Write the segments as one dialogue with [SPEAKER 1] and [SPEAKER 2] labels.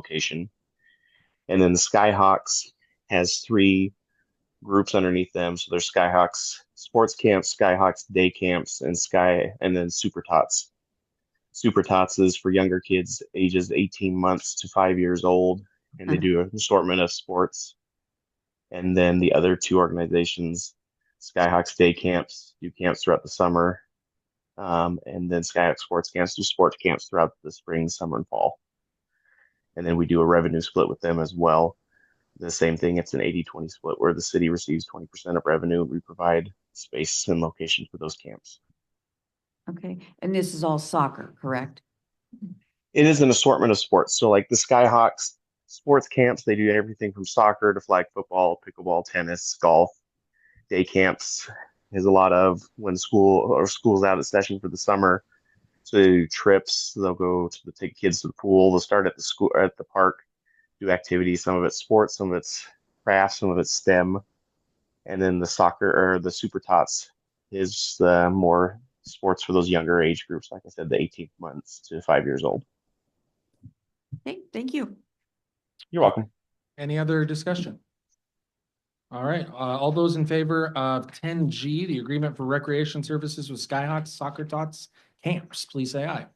[SPEAKER 1] location. And then the Skyhawks has three groups underneath them. So there's Skyhawks sports camps, Skyhawks day camps, and Sky and then Super Tots. Super Tots is for younger kids ages 18 months to five years old, and they do an assortment of sports. And then the other two organizations, Skyhawks Day Camps, do camps throughout the summer, um, and then Skyhawk Sports Camps do sports camps throughout the spring, summer, and fall. And then we do a revenue split with them as well. The same thing, it's an 80 20 split where the city receives 20% of revenue. We provide space and location for those camps.
[SPEAKER 2] Okay, and this is all soccer, correct?
[SPEAKER 1] it is an assortment of sports. So like the Skyhawks sports camps, they do everything from soccer to flag football, pickleball, tennis, golf. Day camps is a lot of when school or school's out of session for the summer. So they do trips, they'll go to the take kids to the pool. They'll start at the school or at the park, do activities. Some of it's sports, some of it's crafts, some of it's STEM, and then the soccer or the super tots is uh, more sports for those younger age groups. Like I said, the 18 months to five years old.
[SPEAKER 2] Okay, thank you.
[SPEAKER 1] You're welcome.
[SPEAKER 3] Any other discussion? All right, uh, all those in favor of ten G, the agreement for recreation services with Skyhawks, Soccer Tots, camps, please say aye.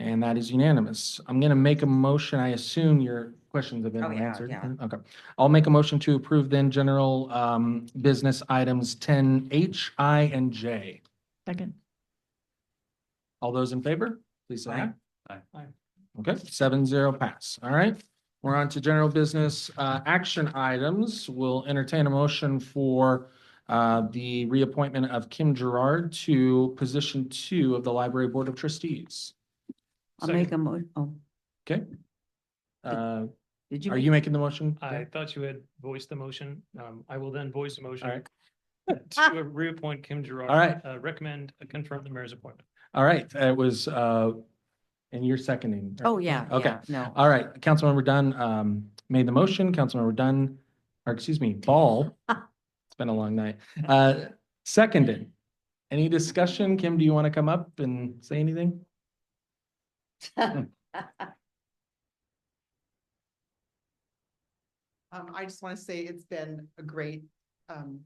[SPEAKER 3] And that is unanimous. I'm gonna make a motion. I assume your questions have been
[SPEAKER 2] Oh, yeah,
[SPEAKER 3] answered.
[SPEAKER 2] yeah.
[SPEAKER 3] Okay. I'll make a motion to approve then general, um, business items ten H, I, and J.
[SPEAKER 4] Second.
[SPEAKER 3] All those in favor, please say aye.
[SPEAKER 5] Aye.
[SPEAKER 3] Aye. Okay, seven zero pass. All right. We're on to general business, uh, action items. We'll entertain a motion for uh, the reappointment of Kim Gerard to position two of the library board of trustees.
[SPEAKER 2] I'll make a mo, oh,
[SPEAKER 3] Okay? Uh,
[SPEAKER 2] did you?
[SPEAKER 3] are
[SPEAKER 2] make-
[SPEAKER 3] you making the motion?
[SPEAKER 5] I thought you had voiced the motion. Um, I will then voice the motion.
[SPEAKER 3] Alright.
[SPEAKER 5] To reappoint Kim Gerard.
[SPEAKER 3] Alright.
[SPEAKER 5] Uh, recommend, uh, confirm the mayor's appointment.
[SPEAKER 3] All right, it was, uh, and you're seconding. right?
[SPEAKER 2] Oh, yeah,
[SPEAKER 3] Okay.
[SPEAKER 2] yeah, no.
[SPEAKER 3] All right, Councilmember Dunn, um, made the motion, Councilmember Dunn, or excuse me, Ball. It's been a long night. Uh, seconded. Any discussion? Kim, do you want to come up and say anything?
[SPEAKER 6] Um, I just want to say it's been a great, um,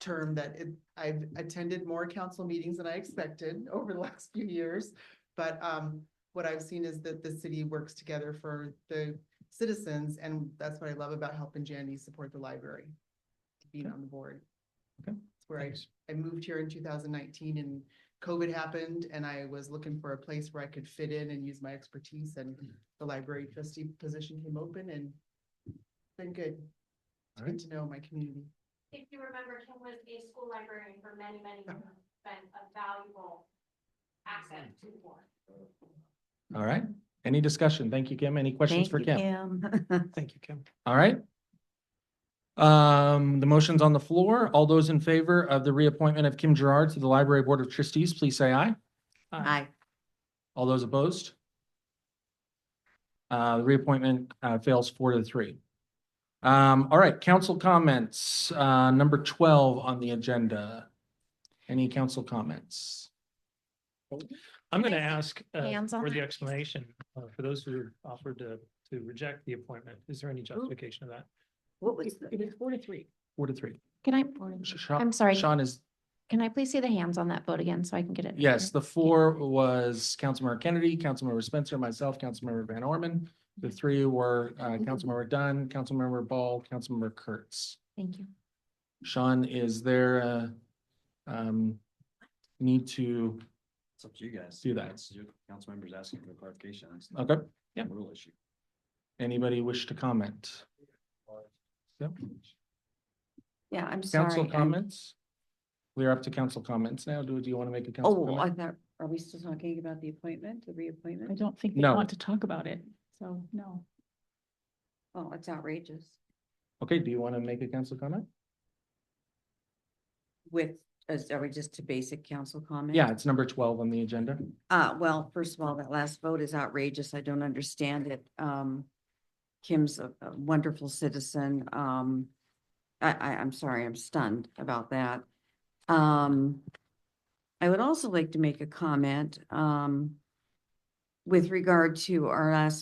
[SPEAKER 6] term that it, I've attended more council meetings than I expected over the last few years. But, um, what I've seen is that the city works together for the citizens and that's what I love about helping Jandy support the library. Being on the board.
[SPEAKER 3] Okay.
[SPEAKER 6] It's where I, I moved here in two thousand nineteen and COVID happened and I was looking for a place where I could fit in and use my expertise and the library trustee position came open and it's been good. It's
[SPEAKER 3] Alright.
[SPEAKER 6] good to know my community.
[SPEAKER 7] If you remember, Kim was a school librarian for many, many years, been a valuable asset to the board.
[SPEAKER 3] All right, any discussion? Thank you, Kim. Any
[SPEAKER 2] Thank
[SPEAKER 3] questions for
[SPEAKER 2] you,
[SPEAKER 3] Kim?
[SPEAKER 2] Kim.
[SPEAKER 5] Thank you, Kim.
[SPEAKER 3] All right. Um, the motion's on the floor. All those in favor of the reappointment of Kim Gerard to the Library Board of Trustees, please say aye.
[SPEAKER 2] Aye,
[SPEAKER 3] All those opposed? Uh, the reappointment, uh, fails four to three. Um, all right, council comments, uh, number twelve on the agenda. Any council comments?
[SPEAKER 5] I'm
[SPEAKER 4] Can
[SPEAKER 5] gonna
[SPEAKER 4] I
[SPEAKER 5] ask uh,
[SPEAKER 4] hands on
[SPEAKER 5] for the
[SPEAKER 4] that?
[SPEAKER 5] explanation, uh, for those who offered to, to reject the appointment. Is there any justification of that?
[SPEAKER 2] what was, the-
[SPEAKER 4] is four to three.
[SPEAKER 3] Four to three.
[SPEAKER 4] Can I,
[SPEAKER 3] Sh- Sha-
[SPEAKER 4] I'm sorry,
[SPEAKER 3] Sean is,
[SPEAKER 4] can I please see the hands on that vote again so I can get it?
[SPEAKER 3] yes, the four was Councilmember Kennedy, Councilmember Spencer, myself, Councilmember Van Orman. The three were, uh, Councilmember Dunn, Councilmember Ball, Councilmember Kurtz.
[SPEAKER 4] Thank you.
[SPEAKER 3] Sean, is there a, um, need to
[SPEAKER 8] It's up to you guys.
[SPEAKER 3] Do that.
[SPEAKER 8] It's your Council members asking for clarification. It's not
[SPEAKER 3] Okay,
[SPEAKER 8] a Rule issue.
[SPEAKER 3] anybody wish to comment? Yep.
[SPEAKER 2] yeah, I'm sorry.
[SPEAKER 3] Council
[SPEAKER 2] I'm-
[SPEAKER 3] comments? We're up to council comments now. Do, do you want to make a council
[SPEAKER 2] Oh, I
[SPEAKER 3] comment?
[SPEAKER 2] thought, are we still talking about the appointment, the
[SPEAKER 4] I
[SPEAKER 2] reappointment?
[SPEAKER 4] don't think they
[SPEAKER 3] No.
[SPEAKER 4] want to talk about it, so no.
[SPEAKER 2] Oh, it's outrageous.
[SPEAKER 3] Okay, do you want to make a council comment?
[SPEAKER 2] With, is- are we just to basic council comment?
[SPEAKER 3] Yeah, it's number twelve on the agenda.
[SPEAKER 2] Uh, well, first of all, that last vote is outrageous. I don't understand it. Um, Kim's a a wonderful citizen. Um, I, I, I'm sorry, I'm stunned about that. Um, I would also like to make a comment, um, with regard to our last